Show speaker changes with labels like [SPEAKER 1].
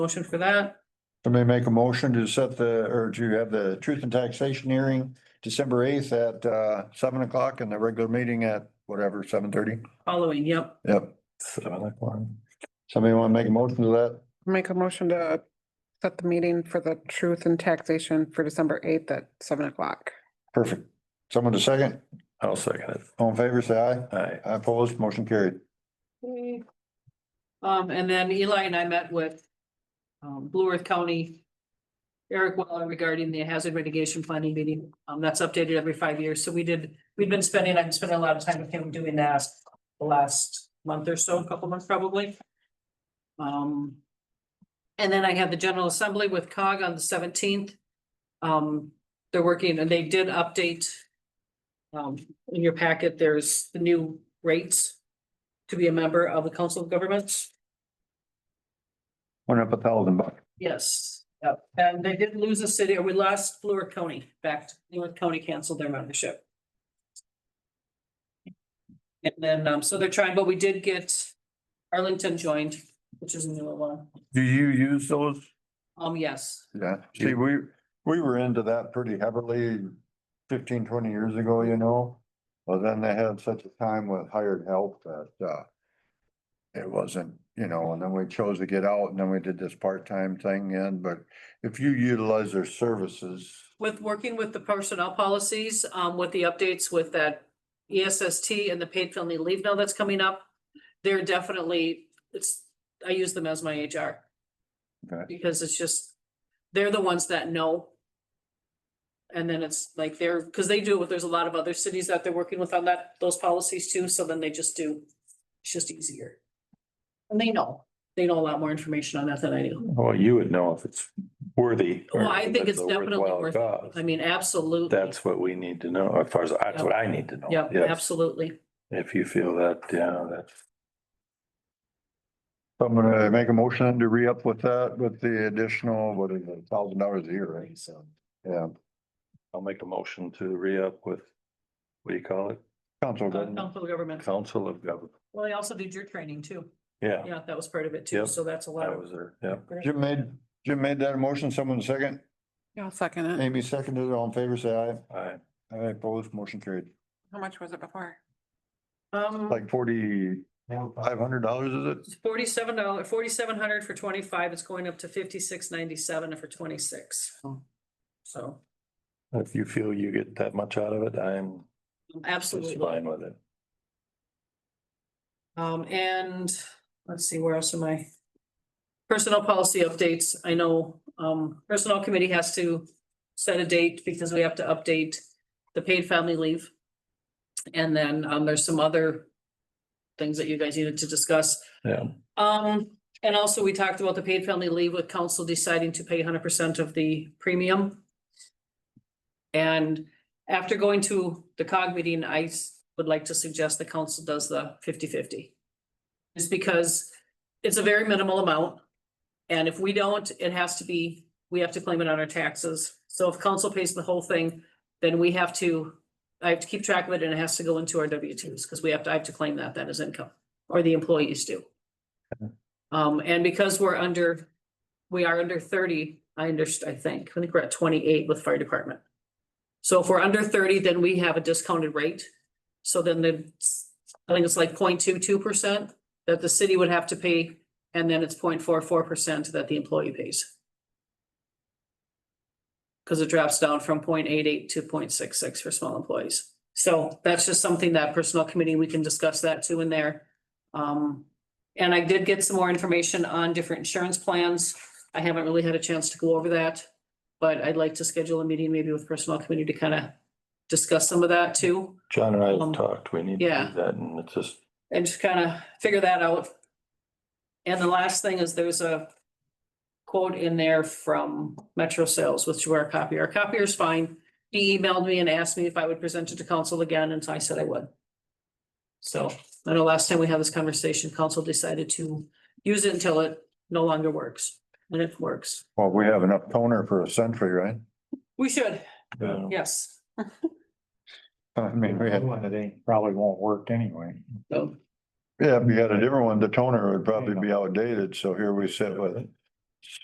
[SPEAKER 1] Motion for that,
[SPEAKER 2] Somebody make a motion to set the, or to have the truth and taxation hearing December eighth at uh seven o'clock and the regular meeting at whatever, seven thirty?
[SPEAKER 1] following, yep,
[SPEAKER 2] Yep. Seven o'clock. Somebody want to make a motion to that?
[SPEAKER 3] Make a motion to set the meeting for the truth and taxation for December eighth at seven o'clock.
[SPEAKER 2] Perfect. Someone to second?
[SPEAKER 4] I'll second
[SPEAKER 2] All in favor, say aye.
[SPEAKER 4] it. Aye.
[SPEAKER 2] Aye, Opposed, motion carried.
[SPEAKER 1] Okay. Mm-hmm. Um, and then Eli and I met with um, Blue Earth County. Eric Weller regarding the hazard mitigation planning meeting. Um, that's updated every five years. So we did, we've been spending, I've been spending a lot of time with him doing that the last month or so, a couple months probably. Um, and then I had the General Assembly with COG on the seventeenth. Um, they're working and they did update. Um, in your packet, there's the new rates to be a member of the Council of Governments?
[SPEAKER 2] Went up a thousand bucks.
[SPEAKER 1] Yes. Yep, and they did lose a city, or we lost Fluor County back, to Fluor County canceled their membership. And then, um, so they're trying, but we did get Arlington joined, which is a newer one.
[SPEAKER 4] Do you use those?
[SPEAKER 1] Um, yes,
[SPEAKER 2] Yeah, see, we, we were into that pretty heavily 15, 20 years ago, you know? Well, then they had such a time with hired help that, uh, it wasn't, you know, and then we chose to get out and then we did this part-time thing in, but if you utilize their services,
[SPEAKER 1] with working with the personnel policies, um, with the updates with that E ESST and the paid family leave now that's coming up, they're definitely, it's, I use them as my HR.
[SPEAKER 2] Okay.
[SPEAKER 1] Because it's just, they're the ones that know. And then it's like they're, because they do it, with- there's a lot of other cities that they're working with on that, those policies too, so then they just do, it's just easier. And they know, they know a lot more information on that than I do.
[SPEAKER 4] Well, you would know if it's worthy. or
[SPEAKER 1] Well, I
[SPEAKER 4] if
[SPEAKER 1] think it's
[SPEAKER 4] a
[SPEAKER 1] definitely
[SPEAKER 4] worthwhile
[SPEAKER 1] worth it.
[SPEAKER 4] cause.
[SPEAKER 1] I mean, absolutely.
[SPEAKER 4] That's what we need to know, as far as, that's what I need to know.
[SPEAKER 1] Yep,
[SPEAKER 4] Yes.
[SPEAKER 1] absolutely.
[SPEAKER 4] If you feel that, yeah, that's,
[SPEAKER 2] So I'm gonna make a motion to re-up with that with the additional, what is it, thousand dollars a year, right? So. Yeah,
[SPEAKER 4] I'll make a motion to re-up with, what do you call it?
[SPEAKER 2] council
[SPEAKER 1] Uh,
[SPEAKER 2] doesn't,
[SPEAKER 1] Council of Government.
[SPEAKER 4] Council of Government.
[SPEAKER 1] Well, they also did your training too.
[SPEAKER 4] Yeah,
[SPEAKER 1] Yeah, that was part of it too.
[SPEAKER 4] Yep.
[SPEAKER 1] So that's a lot
[SPEAKER 4] that
[SPEAKER 1] of.
[SPEAKER 4] was there, yeah.
[SPEAKER 2] Jim made, Jim made that motion, someone second,
[SPEAKER 3] Yeah, I'll second it.
[SPEAKER 2] Amy seconded, it. all in favor, say aye.
[SPEAKER 4] Aye.
[SPEAKER 2] Aye, opposed, motion carried.
[SPEAKER 3] How much was it before?
[SPEAKER 1] Um,
[SPEAKER 2] Like forty, five hundred dollars, is it?
[SPEAKER 1] forty-seven dollar, forty-seven hundred for twenty-five. It's going up to fifty-six ninety-seven for twenty-six. So
[SPEAKER 4] If you feel you get that much out of it, I'm just
[SPEAKER 1] absolutely.
[SPEAKER 4] fine with it.
[SPEAKER 1] Um, and let's see, where else am I? Personnel policy updates. I know, um, personnel committee has to set a date because we have to update the paid family leave. And then, um, there's some other things that you guys needed to discuss.
[SPEAKER 4] Yeah,
[SPEAKER 1] Um, and also we talked about the paid family leave with council deciding to pay hundred percent of the premium. And after going to the cog meeting, I s- would like to suggest the council does the 50-50. Just because it's a very minimal amount. And if we don't, it has to be, we have to claim it on our taxes. So if council pays the whole thing, then we have to, I have to keep track of it and it has to go into our W twos because we have to, I have to claim that, that is income, or the employees do. Um, and because we're under, we are under thirty, I understand, I think, I think we're at twenty-eight with fire department. So if we're under thirty, then we have a discounted rate. So then the, I think it's like 0.22 percent that the city would have to pay, and then it's 0.44 percent that the employee pays. Cause it drops down from 0.88 to 0.66 for small employees. So that's just something that personnel committee, we can discuss that too in there. Um, and I did get some more information on different insurance plans. I haven't really had a chance to go over that. But I'd like to schedule a meeting maybe with personnel committee to kind of discuss some of that too.
[SPEAKER 4] John and I have
[SPEAKER 1] Um,
[SPEAKER 4] talked, we need to
[SPEAKER 1] yeah.
[SPEAKER 4] do that, and it's just,
[SPEAKER 1] And just kind of figure that out. And the last thing is there's a quote in there from Metro Sales, which were our copier. Our copier's fine. He emailed me and asked me if I would present it to council again, and so I said I would. So I know last time we had this conversation, council decided to use it until it no longer works, and it works.
[SPEAKER 2] Well, we have enough toner for a century, right?
[SPEAKER 1] We should,
[SPEAKER 4] you know.
[SPEAKER 1] yes.
[SPEAKER 2] I mean, we had,
[SPEAKER 5] One that ain't, probably won't work anyway.
[SPEAKER 1] So
[SPEAKER 2] yeah, if you had a different one, the toner would probably be outdated, so here we sit with